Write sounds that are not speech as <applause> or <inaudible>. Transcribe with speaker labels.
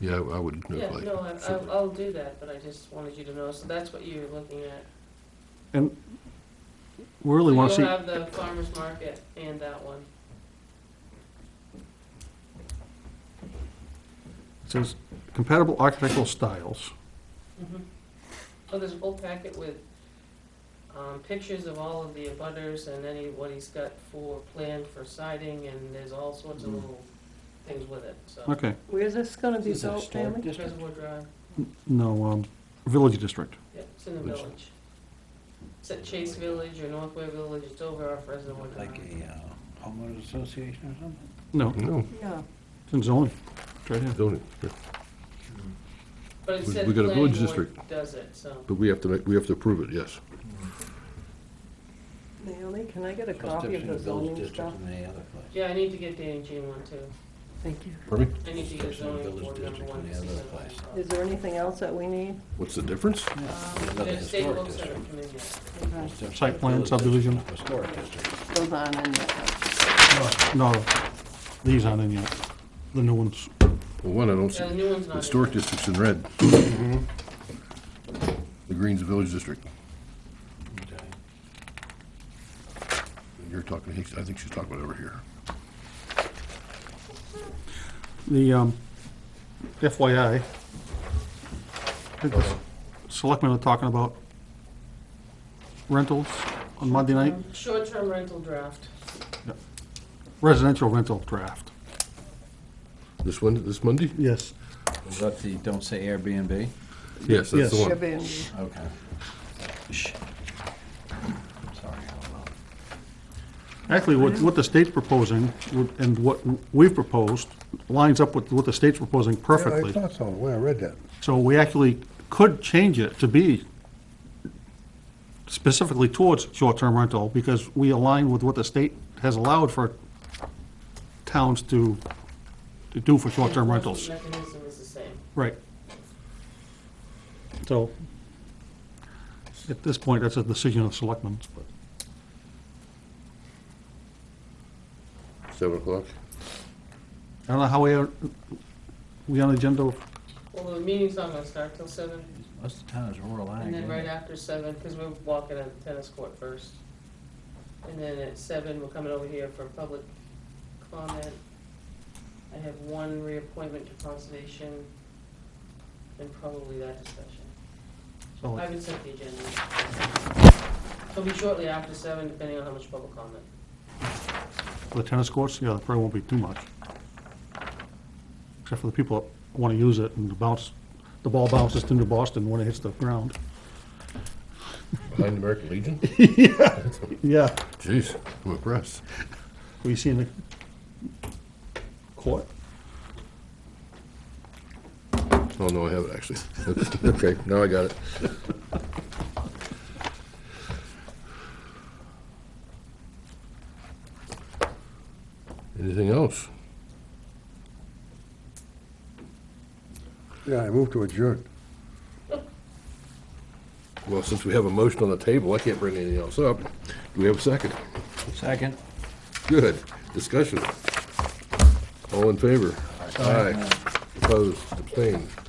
Speaker 1: Yeah, I I would
Speaker 2: Yeah,
Speaker 1: include
Speaker 2: no,
Speaker 1: Blake.
Speaker 2: I- I'll, I'll do that, but I just wanted you to know, so that's what you're looking at.
Speaker 3: And we really want to
Speaker 2: You'll
Speaker 3: see,
Speaker 2: have the farmer's market and that one.
Speaker 3: it says compatible architectural styles.
Speaker 4: Mm-hmm.
Speaker 2: Oh, there's a whole packet with, um, pictures of all of the abutters and any, what he's got for, planned for siding, and there's all sorts
Speaker 1: Mm.
Speaker 2: of little things with it, so.
Speaker 3: Okay,
Speaker 5: Where's this gonna be
Speaker 4: This is a
Speaker 5: built,
Speaker 4: historic
Speaker 5: Naomi?
Speaker 4: district.
Speaker 2: Reservoir Drive,
Speaker 3: no, um, Village District.
Speaker 2: yep, it's in the
Speaker 1: Which-
Speaker 2: village. It's at Chase Village or Northway Village, it's over off Reservoir Drive.
Speaker 4: Like a uh, homeowners association or something?
Speaker 3: No,
Speaker 1: No,
Speaker 5: Yeah.
Speaker 3: it's in zoning. It's right here.
Speaker 1: zoning, yeah.
Speaker 2: But it
Speaker 1: We-
Speaker 2: said
Speaker 1: we got a
Speaker 2: planning
Speaker 1: village
Speaker 2: board
Speaker 1: district.
Speaker 2: does it, so.
Speaker 1: but we have to make, we have to approve it, yes.
Speaker 5: Naomi, can I get a
Speaker 4: Plus
Speaker 5: copy of
Speaker 4: different village
Speaker 5: the zoning
Speaker 4: districts
Speaker 5: stuff?
Speaker 4: and any other place.
Speaker 2: Yeah, I need to get Danny Jean one too.
Speaker 5: Thank you.
Speaker 1: Pardon me?
Speaker 2: I need to get
Speaker 4: Especially in
Speaker 2: zoning
Speaker 4: village
Speaker 2: board number
Speaker 4: district
Speaker 2: one
Speaker 4: and
Speaker 2: to
Speaker 4: the
Speaker 2: see
Speaker 4: other
Speaker 2: something.
Speaker 4: place.
Speaker 5: Is there anything else that we need?
Speaker 1: What's the difference?
Speaker 4: Yeah,
Speaker 2: Um,
Speaker 4: another
Speaker 2: The state
Speaker 4: historic
Speaker 2: books haven't
Speaker 4: district.
Speaker 2: come in yet.
Speaker 5: Okay,
Speaker 4: It's different.
Speaker 3: Site plan,
Speaker 4: Village
Speaker 3: subdivision.
Speaker 4: district, Historic district.
Speaker 5: Goes on in there.
Speaker 3: No, these aren't in yet, the new ones.
Speaker 1: Well, one, I don't see,
Speaker 2: Yeah, Uh, the new one's not. Mm-hmm. in
Speaker 1: historic
Speaker 2: there.
Speaker 1: district's in red. The green's the village district.
Speaker 4: Okay.
Speaker 1: And You're talking, I think she's talking about over here.
Speaker 3: The um, FYI, I think the selectmen are talking about rentals on Monday night,
Speaker 2: Short-term rental draft.
Speaker 3: residential rental draft.
Speaker 1: This one, this Monday?
Speaker 3: Yes.
Speaker 4: Is that the, don't say Airbnb?
Speaker 1: Yes, that's the
Speaker 3: Yes.
Speaker 1: one.
Speaker 5: Airbnb.
Speaker 4: Okay. Shh. Sorry, hold on.
Speaker 3: Actually, what, what the state's proposing would- and what we've proposed lines up with what the state's proposing
Speaker 6: I
Speaker 3: perfectly.
Speaker 6: thought so, the way I read that.
Speaker 3: So we actually could change it to be specifically towards short-term rental because we align with what the state has allowed for towns to, to do for short-term rentals.
Speaker 2: Mechanism is the same.
Speaker 3: Right. So, at this point, that's a decision of selectmen, but.
Speaker 1: Seven o'clock.
Speaker 3: I don't know how we are, we on agenda,
Speaker 2: Well, the meeting's not gonna start till seven,
Speaker 4: Most of the time it's rural ag.
Speaker 2: and then
Speaker 4: isn't
Speaker 2: right
Speaker 4: it?
Speaker 2: after seven, because we're walking on the tennis court first. And then at seven, we're coming over here for public comment. I have one reappointment to conservation, and probably that discussion. I
Speaker 3: so,
Speaker 2: haven't sent the agenda. It'll be shortly after seven, depending on how much public comment.
Speaker 3: for the tennis courts, yeah, there probably won't be too much. Except for the people that want to use it and the bounce, the ball bounces into Boston when it hits the ground.
Speaker 1: Behind the American Legion?
Speaker 3: Yeah.
Speaker 1: Jeez, I'm impressed.
Speaker 3: Were you seeing the court?
Speaker 1: Oh, no, I haven't actually. <laughs> Okay, now I got it. Anything else?
Speaker 6: Yeah, I moved to adjourn.
Speaker 1: Well, since we have a motion on the table, I can't bring anything else up. Do we have a second?
Speaker 4: Second.
Speaker 1: Good. Discussion. All in favor? Aye. Opposed, abstained.